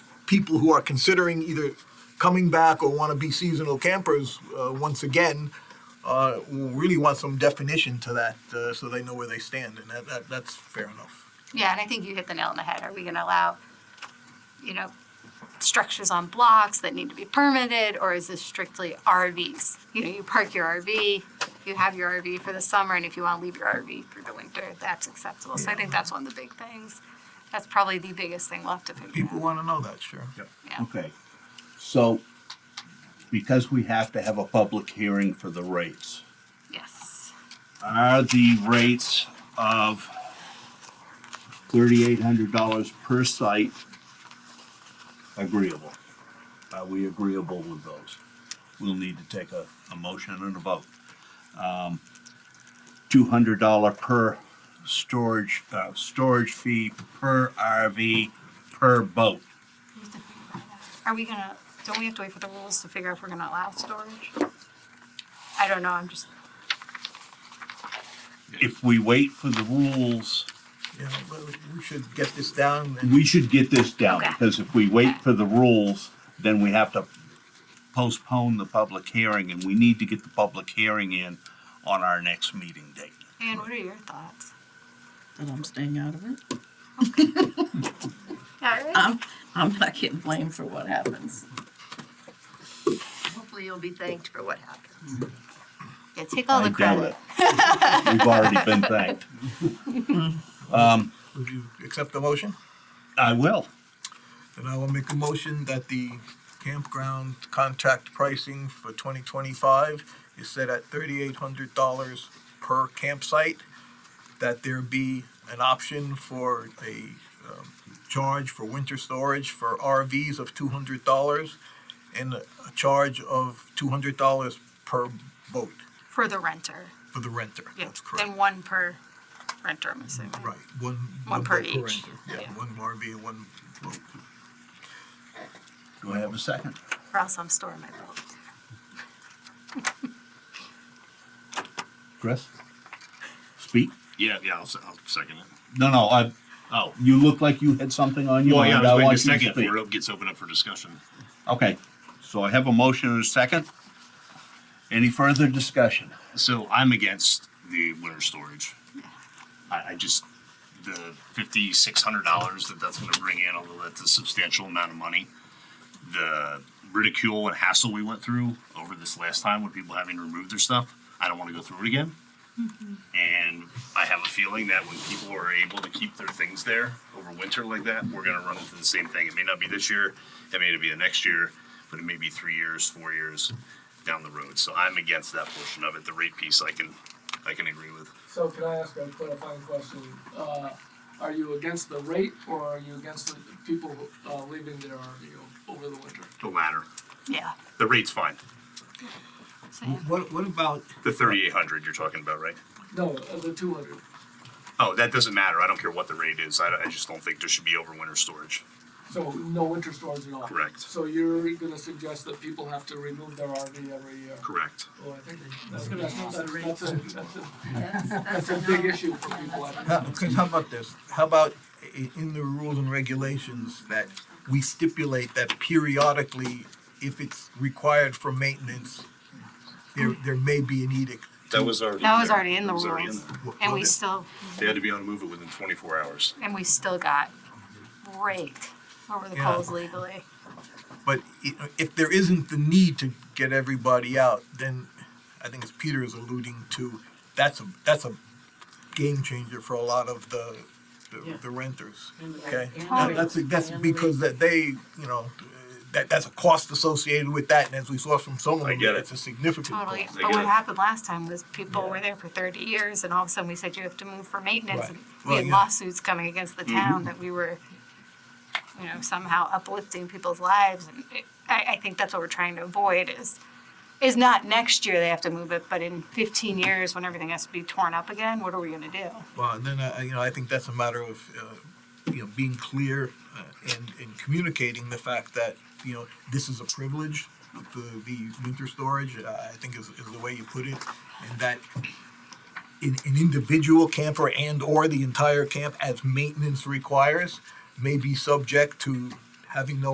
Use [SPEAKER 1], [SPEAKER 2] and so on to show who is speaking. [SPEAKER 1] people who are considering either coming back or want to be seasonal campers uh, once again uh, really want some definition to that uh, so they know where they stand, and that, that, that's fair enough.
[SPEAKER 2] Yeah, and I think you hit the nail on the head. Are we gonna allow, you know, structures on blocks that need to be permitted, or is this strictly RVs? You know, you park your RV, you have your RV for the summer, and if you wanna leave your RV through the winter, that's acceptable. So I think that's one of the big things. That's probably the biggest thing left to figure
[SPEAKER 1] People
[SPEAKER 2] out.
[SPEAKER 1] want to know that, sure.
[SPEAKER 2] Yeah.
[SPEAKER 3] Okay, so because we have to have a public hearing for the rates,
[SPEAKER 2] Yes.
[SPEAKER 3] are the rates of thirty-eight hundred dollars per site agreeable? Are we agreeable with those? We'll need to take a, a motion and a vote. Um, Two hundred dollar per storage, uh, storage fee per RV, per boat.
[SPEAKER 2] Are we gonna, don't we have to wait for the rules to figure out if we're gonna allow storage? I don't know, I'm just,
[SPEAKER 3] If we wait for the rules.
[SPEAKER 1] Yeah, but we should get this down and
[SPEAKER 3] We should get this down,
[SPEAKER 2] Okay.
[SPEAKER 3] because if we wait for the rules, then we have to postpone the public hearing, and we need to get the public hearing in on our next meeting date.
[SPEAKER 2] Anne, what are your thoughts?
[SPEAKER 4] that I'm staying out of it.
[SPEAKER 2] Yeah, right?
[SPEAKER 4] I'm, I'm not getting blamed for what happens.
[SPEAKER 2] Hopefully you'll be thanked for what happens. Yeah, take all
[SPEAKER 3] I
[SPEAKER 2] the
[SPEAKER 3] doubt
[SPEAKER 2] credit.
[SPEAKER 3] it. We've already been thanked.
[SPEAKER 1] would you accept the motion?
[SPEAKER 3] I will.
[SPEAKER 1] And I will make a motion that the campground contract pricing for twenty twenty-five is set at thirty-eight hundred dollars per campsite. That there be an option for a, um, charge for winter storage for RVs of two hundred dollars and a a charge of two hundred dollars per boat
[SPEAKER 2] For the renter,
[SPEAKER 1] for the renter.
[SPEAKER 2] yeah,
[SPEAKER 1] That's correct.
[SPEAKER 2] and one per renter, I'm assuming.
[SPEAKER 1] Right, one.
[SPEAKER 2] One per
[SPEAKER 1] boat
[SPEAKER 2] each.
[SPEAKER 1] renter. Yeah,
[SPEAKER 2] Yeah.
[SPEAKER 1] one RV and one boat.
[SPEAKER 3] Do I have a second?
[SPEAKER 2] Or else I'm storing my boat.
[SPEAKER 3] Chris? Speak?
[SPEAKER 5] Yeah, yeah, I'll, se- I'll second it.
[SPEAKER 3] No, no, I,
[SPEAKER 5] Oh,
[SPEAKER 3] you look like you had something on your
[SPEAKER 5] well, yeah,
[SPEAKER 3] mind.
[SPEAKER 5] I was waiting a
[SPEAKER 3] want you to
[SPEAKER 5] second
[SPEAKER 3] speak.
[SPEAKER 5] before it gets opened up for discussion.
[SPEAKER 3] Okay, so I have a motion and a second. Any further discussion?
[SPEAKER 5] So I'm against the winter storage. I, I just, the fifty-six hundred dollars that that's gonna bring in, although that's a substantial amount of money. The ridicule and hassle we went through over this last time with people having to remove their stuff, I don't wanna go through it again. And I have a feeling that when people are able to keep their things there over winter like that, we're gonna run into the same thing. It may not be this year, it may be the next year, but it may be three years, four years down the road. So I'm against that portion of it. The rate piece, I can, I can agree with.
[SPEAKER 6] So can I ask a clarifying question? Uh, are you against the rate or are you against the people, uh, leaving their RV o- over the winter?
[SPEAKER 5] No matter.
[SPEAKER 2] Yeah.
[SPEAKER 5] The rate's fine.
[SPEAKER 2] Same.
[SPEAKER 1] What, what about
[SPEAKER 5] The thirty-eight hundred you're talking about, right?
[SPEAKER 6] No, uh, the two hundred.
[SPEAKER 5] Oh, that doesn't matter. I don't care what the rate is. I, I just don't think there should be overwinter storage.
[SPEAKER 6] So no winter storms at all?
[SPEAKER 5] Correct.
[SPEAKER 6] So you're gonna suggest that people have to remove their RV every year?
[SPEAKER 5] Correct.
[SPEAKER 6] Well, I think that's, that's, that's, that's a, that's a, that's a big issue for people. I think.
[SPEAKER 1] How- Chris, how about this? How about i- in the rules and regulations that we stipulate that periodically, if it's required for maintenance, there, there may be an edict.
[SPEAKER 5] That was already.
[SPEAKER 2] That
[SPEAKER 5] in
[SPEAKER 2] was
[SPEAKER 5] there.
[SPEAKER 2] already in the
[SPEAKER 5] It was already
[SPEAKER 2] rules.
[SPEAKER 5] in there.
[SPEAKER 2] And we still,
[SPEAKER 5] They had to be on the move it within twenty-four hours.
[SPEAKER 2] and we still got raked over the
[SPEAKER 1] Yeah.
[SPEAKER 2] coals legally.
[SPEAKER 1] But i- if there isn't the need to get everybody out, then I think as Peter is alluding to, that's a, that's a game changer for a lot of the, the- the renters. Okay, That- that's, that's because that they, you know, that, that's a cost associated with that, and as we saw from some of
[SPEAKER 5] I
[SPEAKER 1] them,
[SPEAKER 5] get it.
[SPEAKER 1] it's a significant cost.
[SPEAKER 2] Totally.
[SPEAKER 5] They
[SPEAKER 2] But
[SPEAKER 5] get
[SPEAKER 2] what
[SPEAKER 5] it.
[SPEAKER 2] happened last time was people were there for thirty years and all of a sudden we said you have to move for maintenance.
[SPEAKER 1] Right.
[SPEAKER 2] and We
[SPEAKER 1] Well,
[SPEAKER 2] had
[SPEAKER 1] yeah. Mm-hmm.
[SPEAKER 2] lawsuits coming against the town that we were, you know, somehow uplifting people's lives. And it- I, I think that's what we're trying to avoid is, is not next year they have to move it, but in fifteen years when everything has to be torn up again, what are we gonna do?
[SPEAKER 1] Well, and then, uh, you know, I think that's a matter of, uh, you know, being clear uh, and, and communicating the fact that, you know, this is a privilege, the, the winter storage, uh, I think is, is the way you put it, and that an, an individual camper and/or the entire camp, as maintenance requires, may be subject to having no